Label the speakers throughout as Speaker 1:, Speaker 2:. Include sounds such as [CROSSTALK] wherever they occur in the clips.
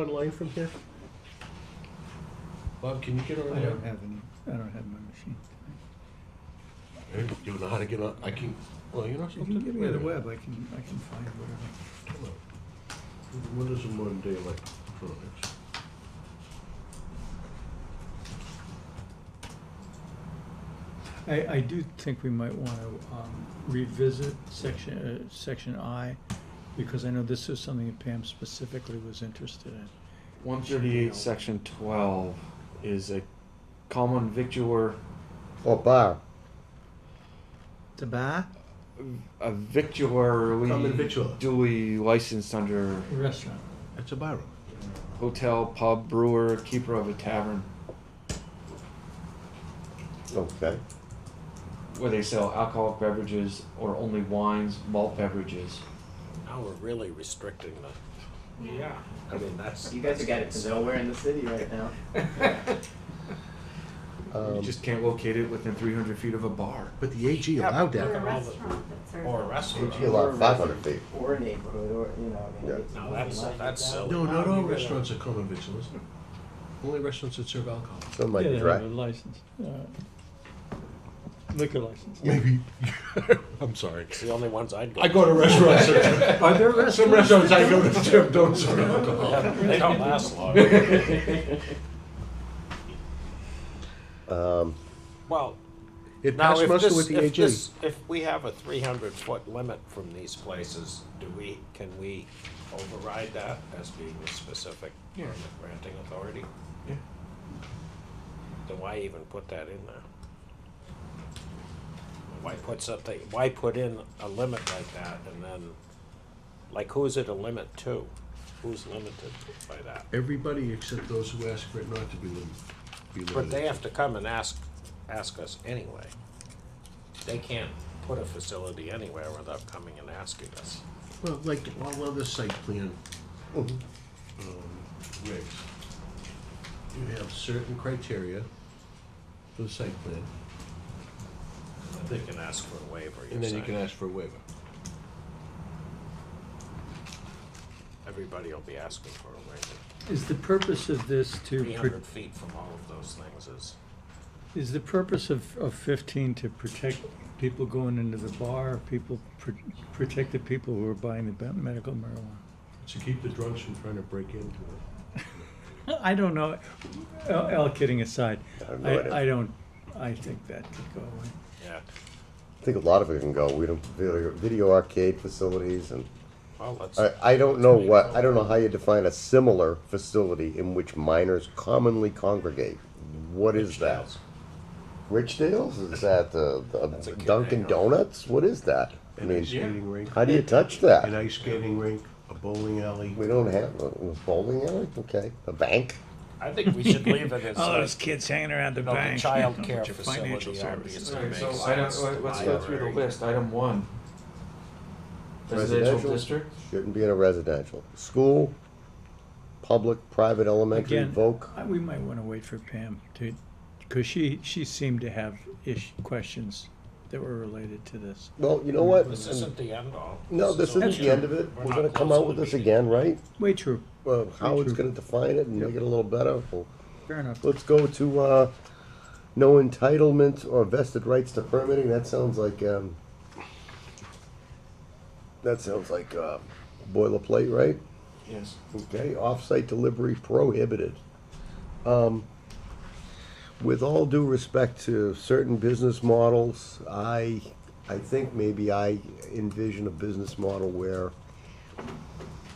Speaker 1: line from here?
Speaker 2: Bob, can you get over
Speaker 3: I don't
Speaker 2: there?
Speaker 3: have any, I don't have my machine.
Speaker 2: Hey, Do you know how to get on? I can, well, you know
Speaker 3: You
Speaker 2: something?
Speaker 3: can give me
Speaker 2: Wait a
Speaker 3: the
Speaker 2: minute.
Speaker 3: web, I can, I can find whatever.
Speaker 2: Come on. What is a modern day electronics?
Speaker 3: I, I do think we might want to um, revisit section, uh, section I, because I know this is something that Pam specifically was interested in.
Speaker 4: One thirty-eight, section twelve, is a common victuar,
Speaker 1: Or bar?
Speaker 3: Tabar?
Speaker 4: a victuary
Speaker 2: Common victualler.
Speaker 4: duly licensed under
Speaker 3: Restaurant.
Speaker 2: It's a barroom.
Speaker 4: hotel, pub, brewer, keeper of a tavern,
Speaker 1: Okay.
Speaker 4: where they sell alcoholic beverages or only wines, malt beverages.
Speaker 5: Now we're really restricting the,
Speaker 6: Yeah.
Speaker 5: I mean, that's.
Speaker 7: You guys are getting to nowhere in the city right now.
Speaker 4: You
Speaker 1: Um,
Speaker 4: just can't locate it within three hundred feet of a bar.
Speaker 1: But the AG allowed
Speaker 6: Or
Speaker 1: that.
Speaker 6: a restaurant that serves.
Speaker 5: Or a
Speaker 1: AG
Speaker 5: restaurant.
Speaker 1: allowed five hundred feet.
Speaker 7: Or a neighborhood, or, you know, I mean.
Speaker 1: Yeah.
Speaker 7: it's
Speaker 5: No,
Speaker 7: nothing
Speaker 5: that's-
Speaker 7: like
Speaker 5: that's
Speaker 7: that.
Speaker 5: silly.
Speaker 2: No, not all restaurants are common victuals. Only restaurants that serve alcohol.
Speaker 1: Some might be
Speaker 3: Yeah, they have
Speaker 1: right.
Speaker 3: a license, uh, liquor license.
Speaker 2: Maybe. [LAUGHS] I'm sorry.
Speaker 5: It's the only ones I'd go.
Speaker 2: I go to restaurants. that-
Speaker 3: Are there
Speaker 2: Some restaurants I go to Jim don't serve alcohol.
Speaker 5: Yeah, They don't last long. [LAUGHS]
Speaker 1: Um,
Speaker 5: Well,
Speaker 1: It
Speaker 5: now
Speaker 1: passed
Speaker 5: if
Speaker 1: muster with
Speaker 5: this,
Speaker 1: the
Speaker 5: if
Speaker 1: AG.
Speaker 5: this, if we have a three hundred foot limit from these places, do we, can we override that as being a specific
Speaker 4: Yeah.
Speaker 5: permit granting authority?
Speaker 4: Yeah.
Speaker 5: Then why even put that in there? Why put something, why put in a limit like that and then, like, who is it a limit to? Who's limited by that?
Speaker 2: Everybody except those who ask for it not to be lim- be limited.
Speaker 5: But they have to come and ask, ask us anyway. They can't put a facility anywhere without coming and asking us.
Speaker 2: Well, like, all other site plan, um,
Speaker 5: Mm-hmm.
Speaker 2: regs, you have certain criteria for the site plan,
Speaker 5: They can ask for a waiver,
Speaker 2: and
Speaker 5: you're
Speaker 2: then you can
Speaker 5: saying.
Speaker 2: ask for a waiver.
Speaker 5: Everybody will be asking for a waiver.
Speaker 3: Is the purpose of this to,
Speaker 5: Three
Speaker 3: pro-
Speaker 5: hundred feet from all of those things is,
Speaker 3: is the purpose of, of fifteen to protect people going into the bar, people, pr- protect the people who are buying the be- medical marijuana?
Speaker 2: To keep the drunks from trying to break into it.
Speaker 3: I don't know, all, all kidding aside,
Speaker 1: I have no idea.
Speaker 3: I, I don't, I think that could go away.
Speaker 5: yeah.
Speaker 1: I think a lot of it can go. We don't, video, video arcade facilities and,
Speaker 5: Well, let's,
Speaker 1: I, I don't know what, I don't know how you define a similar facility in which minors commonly congregate. What is that? Rich Dale's? Is that the,
Speaker 5: That's
Speaker 1: the
Speaker 5: a kid
Speaker 1: Dunkin'
Speaker 5: hangover.
Speaker 1: Donuts? What is that? I
Speaker 2: An ice
Speaker 1: mean,
Speaker 2: skating rink,
Speaker 1: how do you touch
Speaker 2: an
Speaker 1: that?
Speaker 2: ice skating rink, a bowling alley.
Speaker 1: We don't have a a bowling alley? Okay. A bank?
Speaker 5: I think we should leave
Speaker 3: [LAUGHS]
Speaker 5: it as,
Speaker 3: All
Speaker 5: uh,
Speaker 3: those kids hanging around the
Speaker 5: you know, the
Speaker 3: bank. [LAUGHS]
Speaker 5: child
Speaker 3: you know,
Speaker 5: care
Speaker 3: with your financial
Speaker 5: facility
Speaker 3: services.
Speaker 5: obviously
Speaker 4: Alright,
Speaker 5: makes
Speaker 4: so
Speaker 5: sense.
Speaker 4: I don't, let- let's go through the
Speaker 5: Library.
Speaker 4: list, item one.
Speaker 1: Residential.
Speaker 4: Residential district,
Speaker 1: Shouldn't be in a residential. School, public, private, elementary,
Speaker 3: Again,
Speaker 1: voc.
Speaker 3: I- we might wanna wait for Pam to, cause she, she seemed to have ish, questions that were related to this.
Speaker 1: Well, you know what?
Speaker 5: This isn't the end all.
Speaker 1: No, this
Speaker 5: only-
Speaker 1: isn't the end of it.
Speaker 5: We're
Speaker 1: We're
Speaker 5: not
Speaker 1: gonna come
Speaker 5: close
Speaker 1: out
Speaker 5: to
Speaker 1: with
Speaker 5: the
Speaker 1: this
Speaker 5: meeting.
Speaker 1: again, right?
Speaker 3: Way true,
Speaker 1: Well, how it's
Speaker 3: true.
Speaker 1: gonna define it and make it a little better. Well,
Speaker 3: fair enough.
Speaker 1: Let's go to, uh, no entitlement or vested rights to permitting. That sounds like, um, that sounds like, uh, boilerplate, right?
Speaker 4: yes.
Speaker 1: Okay, off-site delivery prohibited. Um, with all due respect to certain business models, I, I think maybe I envision a business model where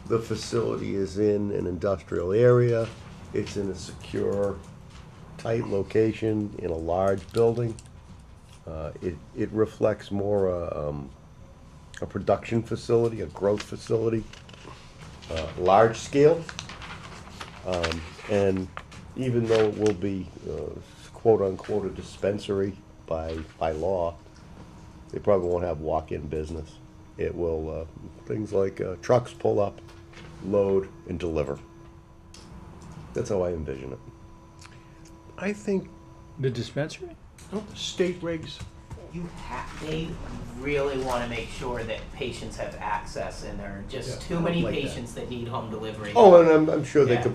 Speaker 1: the facility is in an industrial area, it's in a secure, tight location, in a large building. Uh, it, it reflects more, uh, um, a production facility, a growth facility uh, large scale. Um, And even though it will be uh, quote-unquote a dispensary by, by law, they probably won't have walk-in business. It will, uh, things like uh, trucks pull up, load, and deliver. That's how I envision it.
Speaker 2: I think,
Speaker 3: The dispensary?
Speaker 2: don't the state regs,
Speaker 7: You have, they really want to make sure that patients have access, and there are
Speaker 2: Yeah,
Speaker 7: just too many
Speaker 1: like that.
Speaker 7: patients that need home delivery.
Speaker 1: Oh, and I'm, I'm sure they
Speaker 7: Yeah.
Speaker 1: could